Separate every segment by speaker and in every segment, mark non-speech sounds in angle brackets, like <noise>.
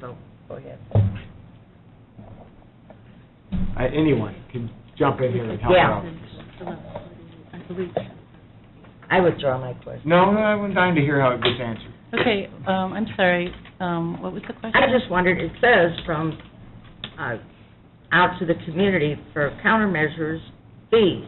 Speaker 1: So,
Speaker 2: Go ahead.
Speaker 3: Uh, Anyone can jump in here and help
Speaker 2: Yeah.
Speaker 3: out.
Speaker 4: I believe.
Speaker 2: I withdraw my question.
Speaker 3: No, no, I'm dying to hear how it gets answered.
Speaker 4: Okay, um, I'm sorry, um, what was the question?
Speaker 2: I just wondered, it says from, uh, out to the community for countermeasures, fees.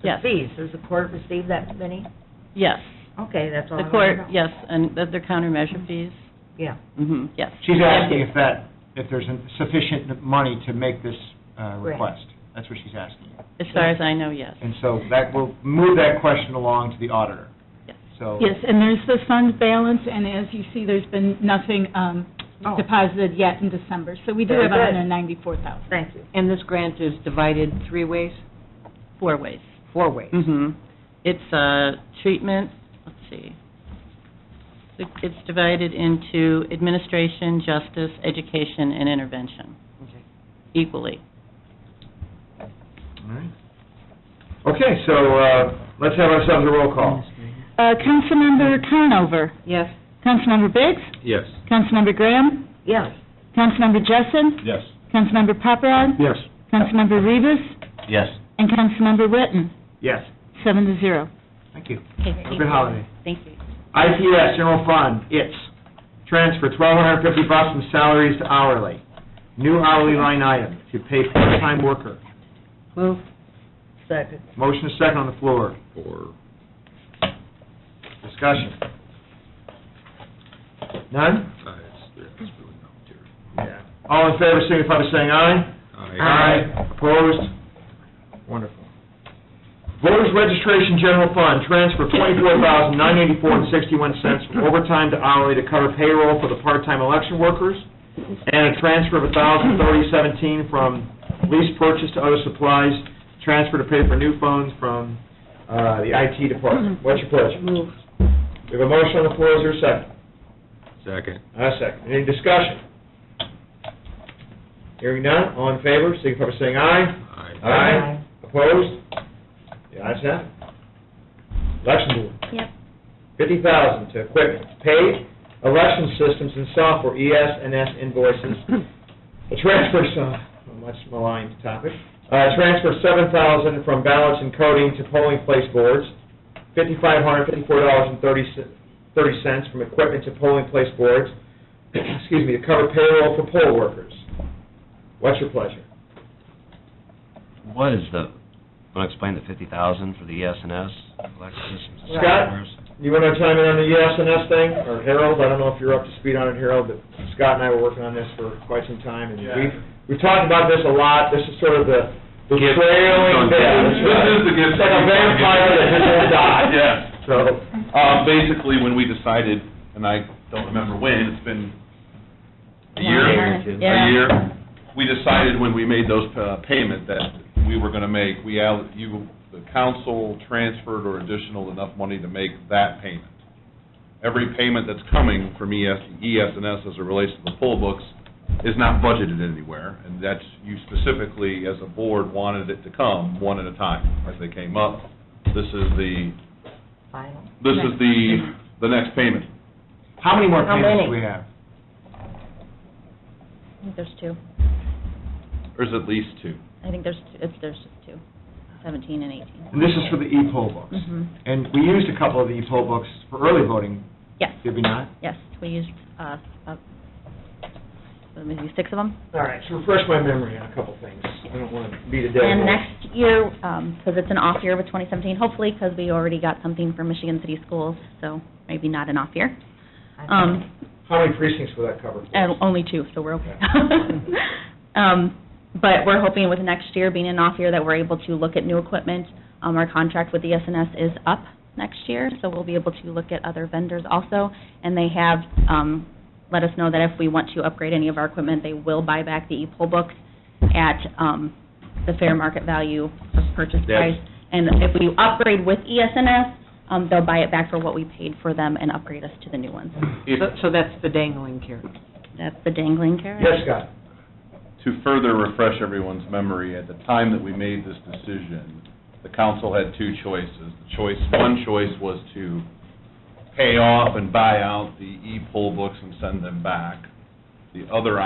Speaker 2: The
Speaker 4: Yes.
Speaker 2: Fees, does the court receive that many?
Speaker 4: Yes,
Speaker 2: Okay, that's all I
Speaker 4: the
Speaker 2: wanted
Speaker 4: court,
Speaker 2: to know.
Speaker 4: yes, and that they're countermeasure fees,
Speaker 2: Yeah,
Speaker 4: hmm yes.
Speaker 3: Mm-hmm. She's asking if that, if there's sufficient money to make this uh,
Speaker 2: Right.
Speaker 3: request. That's what she's asking.
Speaker 4: As far as I know, yes.
Speaker 3: And so that will move that question along to the auditor.
Speaker 4: Yes.
Speaker 3: So,
Speaker 5: Yes, and there's the fund balance, and as you see, there's been nothing um,
Speaker 2: Oh.
Speaker 5: deposited yet in December, so we do
Speaker 2: Very
Speaker 5: have
Speaker 2: good.
Speaker 5: $194,000.
Speaker 2: thank you.
Speaker 1: and this grant is divided three ways,
Speaker 4: Four ways.
Speaker 1: four ways.
Speaker 3: Mm-hmm.
Speaker 4: hmm It's, uh, treatment, let's see. It's divided into administration, justice, education, and intervention
Speaker 1: Okay.
Speaker 4: equally.
Speaker 3: all right. Okay, so uh, let's have ourselves a roll call.
Speaker 5: Uh, Councilmember Conover,
Speaker 1: Yes.
Speaker 5: Councilmember Biggs,
Speaker 6: Yes.
Speaker 5: Councilmember Graham,
Speaker 2: Yes,
Speaker 5: Councilmember Jessen,
Speaker 6: Yes.
Speaker 5: Councilmember Paparad,
Speaker 3: Yes.
Speaker 5: Councilmember Rivas,
Speaker 6: Yes.
Speaker 5: and Councilmember Witten,
Speaker 3: Yes,
Speaker 5: seven to zero.
Speaker 3: thank you.
Speaker 4: Okay,
Speaker 3: Have a good holiday.
Speaker 4: Thank you.
Speaker 3: ITS General Fund, it's transfer twelve hundred fifty bucks from salaries to hourly. New hourly line item to pay part-time worker.
Speaker 1: Move,
Speaker 2: second.
Speaker 3: Motion is second on the floor.
Speaker 6: Or,
Speaker 3: Discussion. None?
Speaker 6: uh, it's, there's really no material.
Speaker 3: Yeah. All in favor, signify by saying aye. Opposed? Wonderful. Voters Registration General Fund, transfer twenty-four thousand nine eighty-four and sixty-one cents from overtime to hourly to cover payroll for the part-time election workers, and a transfer of a thousand thirty seventeen from lease purchase to other supplies, transfer to pay for new phones from, uh, the IT department. What's your pleasure?
Speaker 2: Move.
Speaker 3: We have a motion on the floor, is there a second?
Speaker 6: Second.
Speaker 3: I second. Any discussion? Hearing none, all in favor, signify by saying aye.
Speaker 6: Aye.
Speaker 3: Aye. Opposed? The ayes have it. Election Board.
Speaker 4: Yep.
Speaker 3: Fifty thousand to equipment, paid election systems and software, ES and S invoices. The transfer, a much maligned topic, uh, transfer seven thousand from ballots and coding to polling place boards, fifty-five hundred fifty-four dollars and thirty cents from equipment to polling place boards, <clears throat> excuse me, to cover payroll for poll workers. What's your pleasure?
Speaker 7: What is the, want to explain the fifty thousand for the ES and S, electric systems and
Speaker 3: Scott?
Speaker 7: servers?
Speaker 3: You want to chime in on the ES and S thing, or Harold, I don't know if you're up to speed on it, Harold, but Scott and I were working on this for quite some time, and we've, we've talked about this a lot, this is sort of the, the
Speaker 6: Gift.
Speaker 3: trailing bit.
Speaker 6: This is the gift.
Speaker 3: It's like a vampire that just won't die.
Speaker 6: <laughs>
Speaker 8: Yes.
Speaker 3: So,
Speaker 8: Uh, basically, when we decided, and I don't remember when, it's been a year,
Speaker 4: Yeah.
Speaker 8: a year, we decided when we made those uh, payment that we were going to make, we, al- you, the council transferred or additional enough money to make that payment. Every payment that's coming from ES, ES and S as it relates to the poll books is not budgeted anywhere, and that's, you specifically, as a board, wanted it to come one at a time as they came up. This is the
Speaker 2: Final.
Speaker 8: this is the, the next payment.
Speaker 3: how many more
Speaker 2: How
Speaker 3: payments
Speaker 2: many?
Speaker 3: do we have?
Speaker 4: I think there's two,
Speaker 8: There's at least two.
Speaker 4: I think there's, it's, there's two, seventeen and eighteen.
Speaker 3: And this is for the e-poll books.
Speaker 4: Mm-hmm,
Speaker 3: And we used a couple of the e-poll books for early voting,
Speaker 4: yes.
Speaker 3: did we not?
Speaker 4: Yes, we used, uh, uh, maybe six of them.
Speaker 3: All right, so refresh my memory on a couple things, I don't want to beat a dead
Speaker 4: And
Speaker 3: horse.
Speaker 4: next year, because it's an off year with 2017, hopefully, because we already got something for Michigan City Schools, so maybe not an off year. Um,
Speaker 3: How many precincts will that cover? for us?
Speaker 4: and only two, so we're okay. Um, But we're hoping with next year being an off year that we're able to look at new equipment. Um, Our contract with the SNS is up next year, so we'll be able to look at other vendors also. And they have um, let us know that if we want to upgrade any of our equipment, they will buy back the e-poll books at um, the fair market value of purchase price. And if we upgrade with E ESNS, um, they'll buy it back for what we paid for them and upgrade us to the new ones.
Speaker 8: If,
Speaker 1: So-
Speaker 8: to
Speaker 1: So that's the dangling carrot.
Speaker 4: That's the dangling <laughs> carrot.
Speaker 3: Yes, Scott?
Speaker 8: further refresh everyone's memory, at the time that we made this decision, the council had two choices. The choice, one choice was to pay off and buy out the e-poll books and send them back. The other